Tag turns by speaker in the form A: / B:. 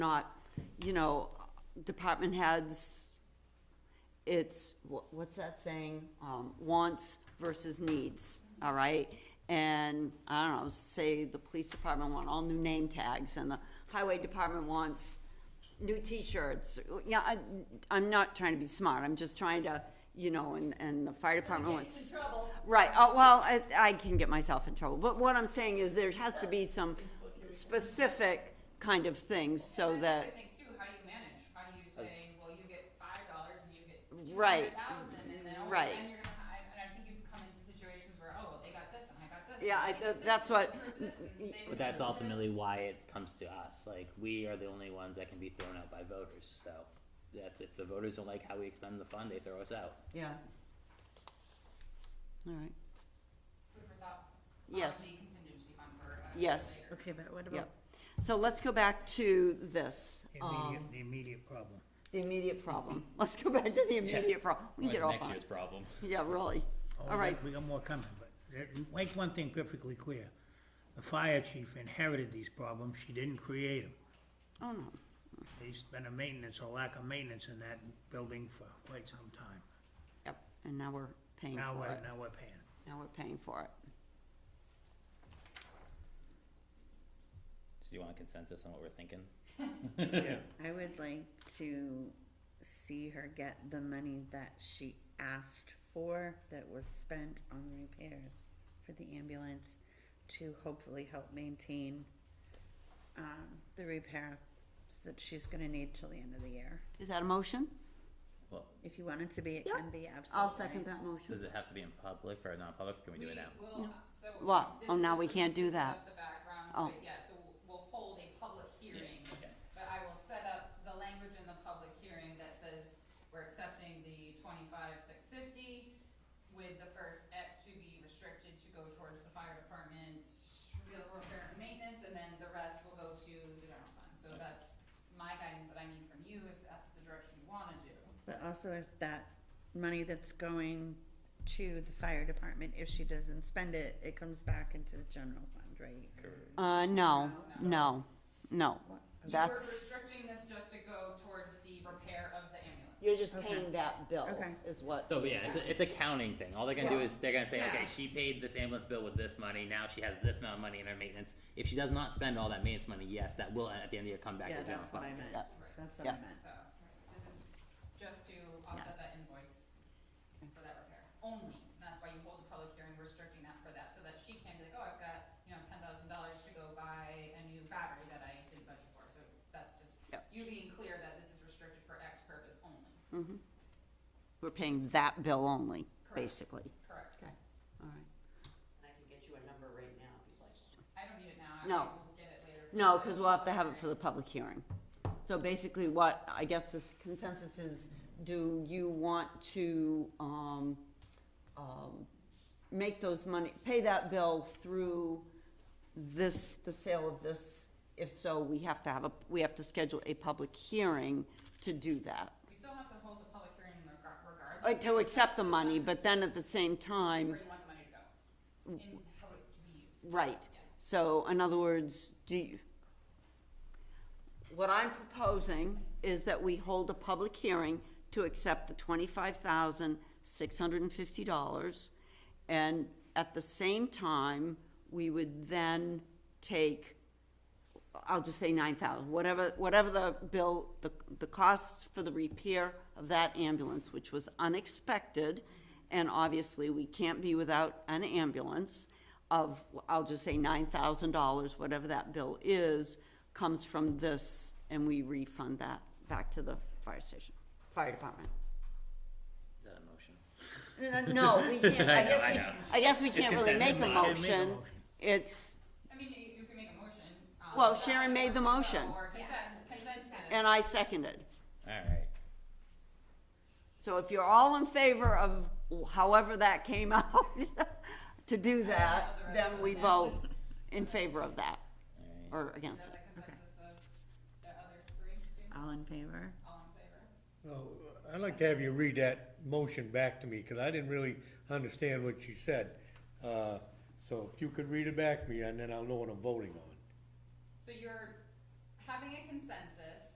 A: not, you know, department heads, it's, wha- what's that saying? Um, wants versus needs, all right? And, I don't know, say the police department want all new name tags, and the highway department wants new T-shirts. Yeah, I, I'm not trying to be smart, I'm just trying to, you know, and, and the fire department wants. Right, uh, well, I, I can get myself in trouble, but what I'm saying is there has to be some specific kind of things so
B: Sometimes
A: that.
B: I think too, how you manage, how do you say, well, you get five dollars and you get two
A: Right.
B: hundred thousand, and then over
A: Right.
B: then you're gonna, hi- and I think you've come into situations where, oh, well, they got this and I got this. and
A: Yeah, I-
B: they did
A: that- that's
B: this, and they
A: what-
B: approved this, and they
C: But that's
B: approved
C: ultimately why it comes to us. Like we are the only ones that can be thrown out by voters. So that's if the voters don't like how we expend the fund, they throw us out.
A: Yeah. All right,
B: this, food for thought on
A: Yes.
B: the contingency fund for, uh,
A: Yes.
B: later.
D: Okay, but what
A: yep.
D: about,
A: So let's go back to this,
E: The
A: um,
E: immediate, the immediate problem.
A: the immediate problem. Let's go back to the immediate problem. We can get off on it.
C: problem.
A: Yeah, really.
E: Oh,
A: All
E: we got-
A: right,
E: We got more coming, but uh, make one thing perfectly clear. The fire chief inherited these problems, she didn't create them.
A: oh no,
E: There's been a maintenance, a lack of maintenance in that building for quite some time.
A: yep, and now we're paying
E: Now
A: for
E: we're,
A: it.
E: now we're paying.
A: Now we're paying for it.
C: So you want a consensus on what we're thinking?
D: I would like to see her get the money that she asked for that was spent on repairs for the ambulance to hopefully help maintain um, the repairs that she's gonna need till the end of the year.
A: Is that a motion?
C: Well,
D: If you want it to be, it
A: Yeah.
D: can be, absolutely.
A: I'll second that motion.
C: does it have to be in public or non-public? Can we do it now?
B: will, so.
A: What?
B: this
A: Oh,
B: is
A: now
B: just
A: we
B: for
A: can't do
B: pieces
A: that.
B: of The background,
A: Oh.
B: but yeah, so we'll hold a public hearing,
C: okay.
B: but I will set up the language in the public hearing that says we're accepting the twenty-five, six fifty with the first X to be restricted to go towards the fire department, real repair and maintenance, and then the rest will go to the general fund. So that's my guidance that I need from you, if that's the direction you wanna do.
D: But also if that money that's going to the fire department, if she doesn't spend it, it comes back into the general fund, right?
A: Uh, no, no, no.
B: You were
A: That's,
B: restricting this just to go towards the repair of the ambulance.
A: you're just
D: Okay.
A: paying that bill
D: Okay.
A: is what.
C: So yeah, it's a, it's a counting thing. All they're gonna do
D: Yeah.
C: is they're gonna say, okay,
D: Yeah.
C: she paid this ambulance bill with this money. Now she has this amount of money in her maintenance. If she does not spend all that maintenance money, yes, that will at the end of the year come back
D: Yeah,
C: to the general
D: that's what
C: fund.
D: I meant.
A: Yeah.
D: That's what I
A: Yeah.
D: meant.
B: So, this is just to offset that invoice for that repair, only, and that's why you hold the public hearing restricting that for that, so that she can be like, oh, I've got, you know, ten thousand dollars to go buy a new battery that I didn't budget for, so that's just,
A: Yep.
B: you being clear that this is restricted for X purpose only,
A: We're paying that bill only, basically.
B: correct?
A: All right.
F: And I can get you a number right now if you'd like.
B: I don't need it now, I
A: No.
B: will get it later. for
A: No,
B: the
A: because we'll have to
B: public
A: have it
B: hearing.
A: for the public hearing. So basically what, I guess this consensus is, do you want to, um, um, make those money, pay that bill through this, the sale of this? If so, we have to have a, we have to schedule a public hearing to do that.
B: We still have to hold the public hearing in regar- regardless.
A: Uh, To accept the money, but then at the same
B: of
A: time,
B: Where you want the money to go, and how it to be used.
A: Right, so in other words, do you, what I'm proposing is that we hold a public hearing to accept the twenty-five thousand, six hundred and fifty dollars. And at the same time, we would then take, I'll just say nine thousand, whatever, whatever the bill, the, the costs for the repair of that ambulance, which was unexpected, and obviously, we can't be without an ambulance, of, I'll just say nine thousand dollars, whatever that bill is, comes from this, and we refund that back to the fire station, fire department.
C: Is that a motion?
A: No, we can't, I
C: know,
A: guess
C: I
A: we,
C: know.
A: I guess we can't really make a
C: consensus.
E: Can't make a
A: motion,
E: motion.
A: it's,
B: I mean, you, you can make a motion. um,
A: Well,
B: but
A: Sharon made the
B: or
A: motion.
B: consensus- consensus.
A: and I seconded.
C: All right.
A: So if you're all in favor of however that came out, to do that, then we vote in favor of that,
C: All right.
A: or
B: Is
A: against it.
B: that the consensus of the other three, two,
D: All in favor?
B: all in favor?
G: Well, I'd like to have you read that motion back to me, because I didn't really understand what you said. Uh, So if you could read it back to me, and then I'll know what I'm voting on.
B: So you're having a consensus